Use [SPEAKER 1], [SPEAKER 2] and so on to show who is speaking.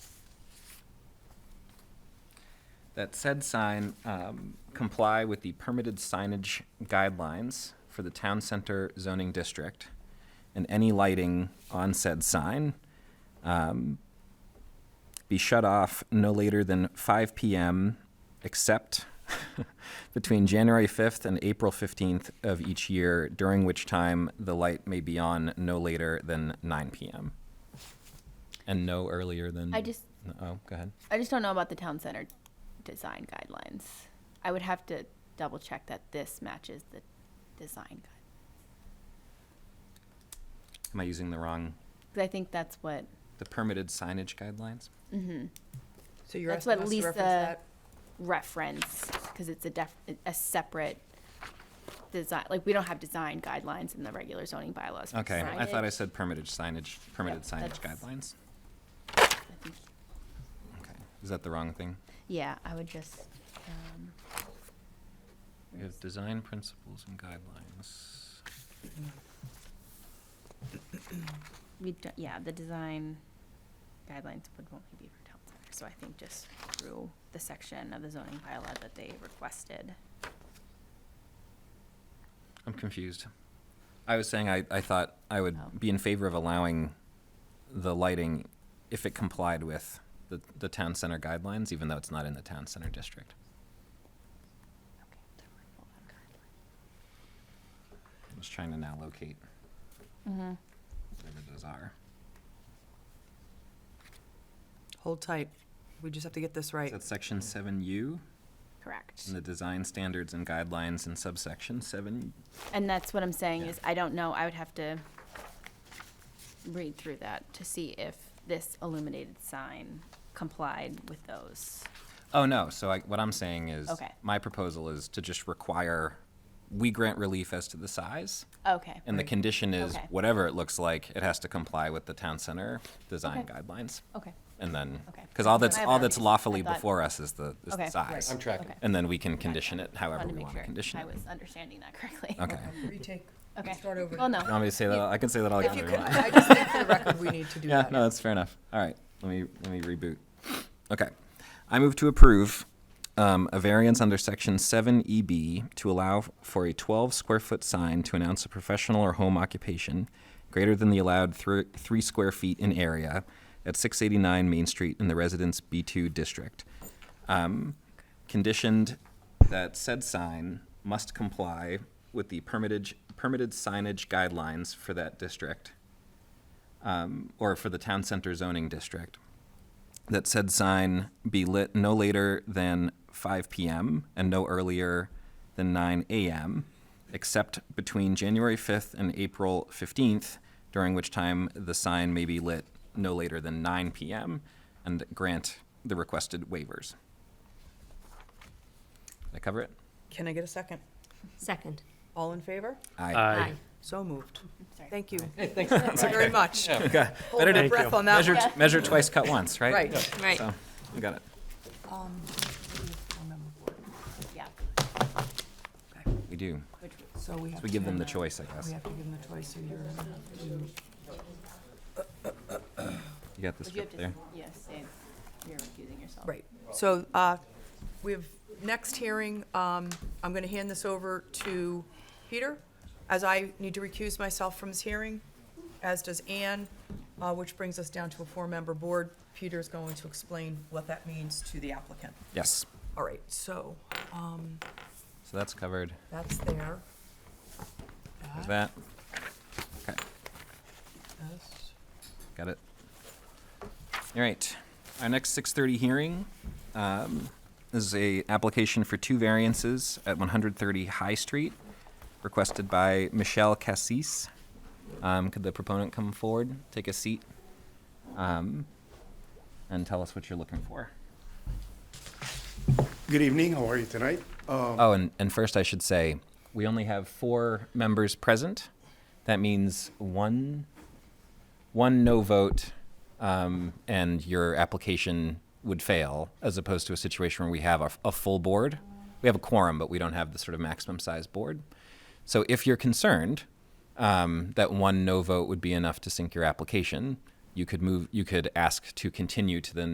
[SPEAKER 1] that said sign um, comply with the permitted signage guidelines for the town center zoning district, and any lighting on said sign um, be shut off no later than 5 p.m. except between January 5th and April 15th of each year, during which time the light may be on no later than 9 p.m. And no earlier than.
[SPEAKER 2] I just,
[SPEAKER 1] No, Oh, go ahead.
[SPEAKER 2] I just don't know about the town center design guidelines. I would have to double check that this matches the design guide.
[SPEAKER 1] Am I using the wrong,
[SPEAKER 2] Because I think that's what,
[SPEAKER 1] the permitted signage guidelines?
[SPEAKER 2] mm-hmm,
[SPEAKER 3] So you're
[SPEAKER 2] That's
[SPEAKER 3] asking
[SPEAKER 2] what
[SPEAKER 3] us to reference
[SPEAKER 2] Lisa-
[SPEAKER 3] that?
[SPEAKER 2] reference, because it's a def, a separate design, like, we don't have design guidelines in the regular zoning bylaws. for
[SPEAKER 1] Okay, I thought I
[SPEAKER 2] signage.
[SPEAKER 1] said permitted signage, permitted signage
[SPEAKER 2] that's-
[SPEAKER 1] guidelines.
[SPEAKER 2] I think-
[SPEAKER 1] Okay, is that the wrong thing?
[SPEAKER 2] Yeah, I would just, um,
[SPEAKER 1] We have design principles and guidelines.
[SPEAKER 2] we, don't- yeah, the design guidelines would only be for town center, so I think just through the section of the zoning bylaw that they requested.
[SPEAKER 1] I'm confused. I was saying I, I thought I would
[SPEAKER 2] Oh.
[SPEAKER 1] be in favor of allowing the lighting if it complied with the, the town center guidelines, even though it's not in the town center district. I'm just trying to now locate
[SPEAKER 2] Mm-hmm.
[SPEAKER 1] whatever those are.
[SPEAKER 3] Hold tight. We just have to get this right.
[SPEAKER 1] That's section seven U,
[SPEAKER 2] Correct.
[SPEAKER 1] in the design standards and guidelines in subsection seven.
[SPEAKER 2] And that's what I'm saying
[SPEAKER 1] Yeah.
[SPEAKER 2] is, I don't know, I would have to read through that to see if this illuminated sign complied with those.
[SPEAKER 1] Oh, no, so I, what I'm saying is,
[SPEAKER 2] Okay.
[SPEAKER 1] my proposal is to just require, we grant relief as to the size.
[SPEAKER 2] Okay,
[SPEAKER 1] And the condition is,
[SPEAKER 2] Okay.
[SPEAKER 1] whatever it looks like, it has to comply with the town center design
[SPEAKER 2] Okay.
[SPEAKER 1] guidelines.
[SPEAKER 2] okay,
[SPEAKER 1] And then,
[SPEAKER 2] Okay.
[SPEAKER 1] because all that's,
[SPEAKER 2] I have
[SPEAKER 1] all
[SPEAKER 2] that.
[SPEAKER 1] that's lawfully
[SPEAKER 2] I thought-
[SPEAKER 1] before us is the, is
[SPEAKER 2] Okay.
[SPEAKER 1] the
[SPEAKER 2] Right.
[SPEAKER 1] size.
[SPEAKER 4] I'm tracking.
[SPEAKER 2] okay.
[SPEAKER 1] And then we can condition it
[SPEAKER 2] Wanted
[SPEAKER 1] however
[SPEAKER 2] to
[SPEAKER 1] we
[SPEAKER 2] make
[SPEAKER 1] want to
[SPEAKER 2] sure
[SPEAKER 1] condition
[SPEAKER 2] I
[SPEAKER 1] it.
[SPEAKER 2] was understanding that correctly.
[SPEAKER 1] Okay.
[SPEAKER 3] Retake,
[SPEAKER 2] Okay.
[SPEAKER 3] start over.
[SPEAKER 2] Well, no.
[SPEAKER 1] You want me to say that? I can say that all
[SPEAKER 3] If you
[SPEAKER 1] again. if
[SPEAKER 3] could,
[SPEAKER 1] you want.
[SPEAKER 3] I just think for the record, we need to do
[SPEAKER 1] Yeah,
[SPEAKER 3] that.
[SPEAKER 1] no, that's fair enough. All right, let me, let me reboot. Okay. I move to approve um, a variance under section seven EB to allow for a twelve square foot sign to announce a professional or home occupation greater than the allowed thr- three square feet in area at six eighty-nine Main Street in the residence B two district. Um, Conditioned that said sign must comply with the permitted, permitted signage guidelines for that district um, or for the town center zoning district that said sign be lit no later than 5 p.m. and no earlier than 9 a.m., except between January 5th and April 15th, during which time the sign may be lit no later than 9 p.m., and grant the requested waivers. Did I cover it?
[SPEAKER 3] Can I get a second?
[SPEAKER 5] Second.
[SPEAKER 3] All in favor?
[SPEAKER 1] Aye.
[SPEAKER 3] So moved.
[SPEAKER 2] Sorry.
[SPEAKER 3] Thank you
[SPEAKER 4] Thanks.
[SPEAKER 3] very much. Hold
[SPEAKER 1] Better
[SPEAKER 3] my
[SPEAKER 1] to
[SPEAKER 3] breath on that
[SPEAKER 1] measure,
[SPEAKER 3] one.
[SPEAKER 1] measure twice, cut once, right?
[SPEAKER 3] Right.
[SPEAKER 5] Right.
[SPEAKER 1] So, you got it. Um,
[SPEAKER 2] Yeah.
[SPEAKER 1] We do.
[SPEAKER 2] Which was-
[SPEAKER 3] So we
[SPEAKER 1] So
[SPEAKER 3] have
[SPEAKER 1] we
[SPEAKER 3] to,
[SPEAKER 1] give them the choice, I guess.
[SPEAKER 3] we have to give them the choice, so you're, you-
[SPEAKER 1] You got the
[SPEAKER 2] But you have
[SPEAKER 1] script
[SPEAKER 2] to,
[SPEAKER 1] there.
[SPEAKER 2] yeah, say you're recusing yourself.
[SPEAKER 3] right. So, uh, we have, next hearing, um, I'm gonna hand this over to Peter, as I need to recuse myself from this hearing, as does Ann, uh, which brings us down to a four-member board. Peter's going to explain what that means to the applicant.
[SPEAKER 1] Yes.
[SPEAKER 3] All right, so, um,
[SPEAKER 1] So that's covered.
[SPEAKER 3] that's there.
[SPEAKER 1] There's
[SPEAKER 3] That
[SPEAKER 1] that. Okay,
[SPEAKER 3] is-
[SPEAKER 1] got it. All right. Our next 6:30 hearing um, is a application for two variances at 130 High Street, requested by Michelle Cassis. Um, could the proponent come forward, take a seat, um, and tell us what you're looking for?
[SPEAKER 6] Good evening, how are you tonight? Um,
[SPEAKER 1] Oh, and, and first I should say, we only have four members present. That means one, one no vote, um, and your application would fail, as opposed to a situation where we have a, a full board. We have a quorum, but we don't have the sort of maximum size board. So if you're concerned um, that one no vote would be enough to sink your application, you could move, you could ask to continue to the